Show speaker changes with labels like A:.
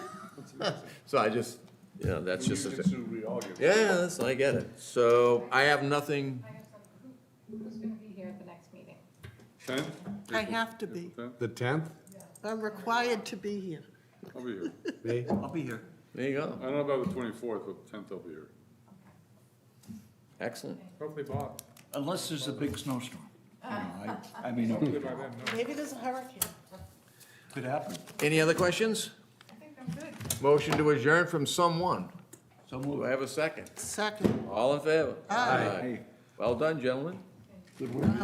A: So I just, you know, that's just,
B: Used
A: a-
B: it to reargue.
A: yeah, that's, I get it. So I have nothing,
C: I have some, who's gonna be here at the next meeting?
B: Ten?
D: I have to be.
B: Ten?
E: The tenth?
D: I'm required to be here.
B: I'll be here.
E: Me?
F: I'll be here.
A: there you go.
B: I don't know about the twenty-fourth, but tenth I'll be here.
A: Excellent.
B: Hopefully Bob.
F: Unless there's a big snowstorm. You know, I I mean,
B: Hopefully
F: it
B: by then, no.
D: Maybe there's a hurricane.
F: could happen.
A: Any other questions? Motion to adjourn from someone.
F: So
A: Do
F: move.
A: I have a second?
D: Second.
A: All in favor?
D: Aye.
A: Well done, gentlemen.
F: Good work.